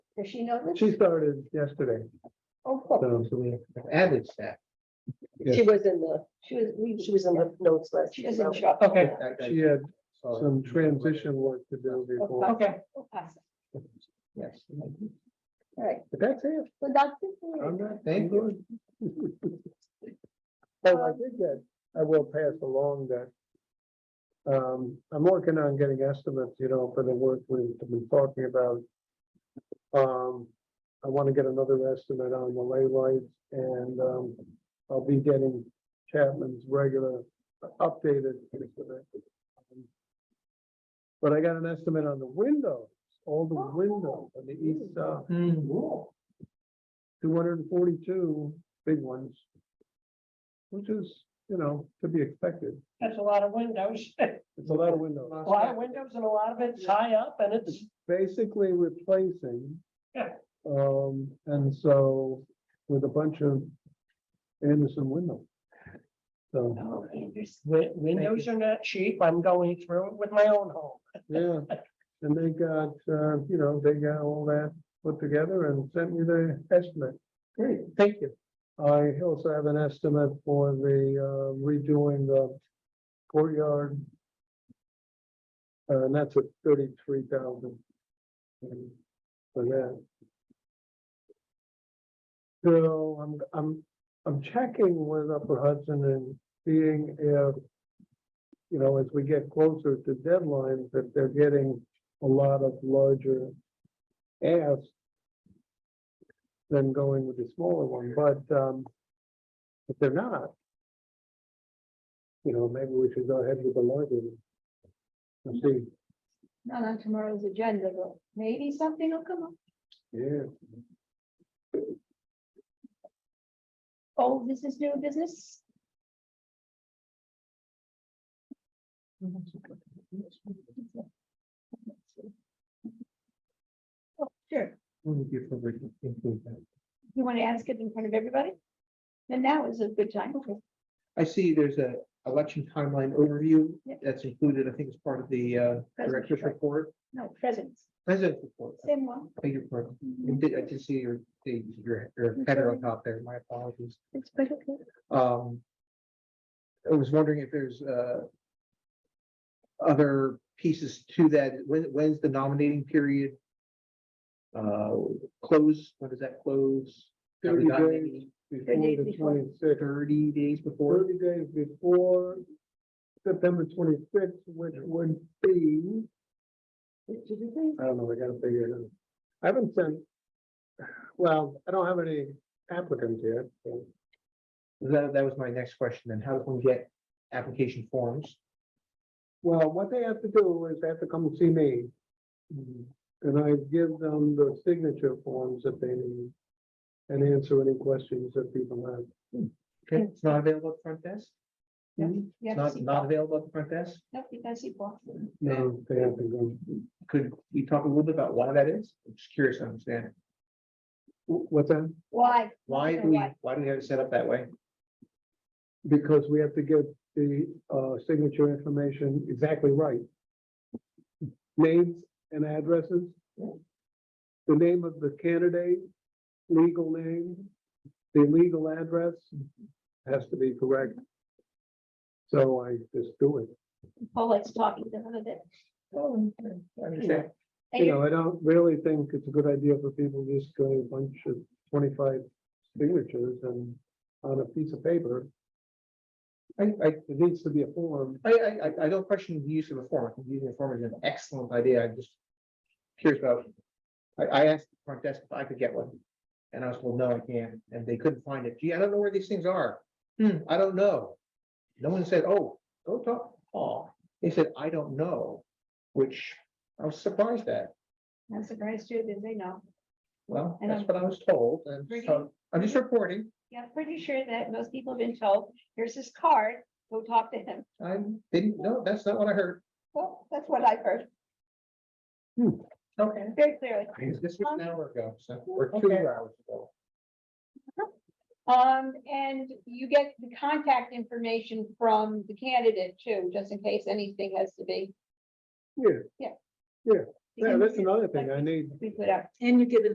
Does she know this? She started yesterday, Oh, cool. so we added staff. Yes. She was in the, She was, we, she was in the notes last. she year. doesn't show up. Okay, she had some transition work to do before. Okay, Oh, pass it. yes. All right, But that's it. so that's it. for me. I'm not, Thank you. Oh, I did get, I will pass along that. Um, I'm working on getting estimates, you know, for the work we've been talking about. Um, I want to get another estimate on the lay lights and, um, I'll be getting Chapman's regular updated. estimate. But I got an estimate on the windows, all the windows on the east side, two hundred and forty-two big ones. Which is, you know, to be expected. That's a lot of windows, a It's a lot of windows. lot of windows and a lot of it's high up and it's, Basically replacing. Yeah. Um, and so with a bunch of Anderson windows. So, No, wi- windows are not cheap. I'm going through it with my own home. yeah, and they got, uh, you know, they got all that put together and sent me the estimate. Great, thank you. I also have an estimate for the uh, redoing the courtyard. Uh, and that's at thirty-three thousand. For that. So I'm, I'm, I'm checking with Upper Hudson and seeing if. You know, as we get closer to deadlines, that they're getting a lot of larger asks. Than going with the smaller one, but, um. If they're not. You know, maybe we should go ahead with the larger. one. And see, Not on tomorrow's agenda, but maybe something will come up. yeah. Oh, this is new business? Oh, Sure, you want to ask it in front of everybody? Then now is a good time. I see there's a election timeline overview Yep. that's included, I think it's part of the uh, director's President's right. report. No, presents, President's report. same one, Thank you for, I did, I did see your, your, your Mm-hmm. header on top there, my apologies. it's quite okay. Um. I was wondering if there's, uh. Other pieces to that, when, when's the nominating period? Uh, close, when does that close? Have we 30 gotten days any Before the before. twenty-sixth, Thirty days before, thirty days before September twenty-sixth, which would be. I don't know, I gotta figure it out. I haven't sent, well, I don't have any applicants yet. so that, that was my next question, then how does one get application forms? Well, what they have to do is they have to come see me. And I give them the signature forms that they need. And answer any questions that people have. Okay, it's not available at the front desk, You It's have to not, see, not available at the front desk, no, you gotta see Paul. No, they have to go. could we talk a little bit about why that is? I'm just curious to understand, Wh- What's that? Why? why do we, why do we have it set up that way? Because we have to get the uh signature information exactly right. Names and addresses. The name of the candidate, legal name, the legal address has to be correct. So I just do it. Paul likes talking to them a bit. I understand. And you- You know, I don't really think it's a good idea for people to just go a bunch of twenty-five signatures and on a piece of paper. I, I, It needs to be a form. I, I, I- I don't question the use of a form. I think Using a form is an excellent idea. I'm just curious about. I, I asked the front desk if I could get one. And I was told, no, I can't. And they couldn't find it. Gee, I don't know where these things are. Hmm, I don't know. No one said, oh, go talk. Oh, they said, I don't know, which I was surprised at. I'm surprised too, did they know? Well, I that's know. what I was told. And so I'm just reporting. Yeah, I'm pretty sure that most people have been told, here's his card, go talk to him. I didn't, no, that's not what I heard. Well, that's what I've heard Okay. very clearly. This was an hour ago, so, or two hours ago. Um, and you get the contact information from the candidate too, just in case anything has to be. Yeah, yeah, that's another thing. I need We put out And you give it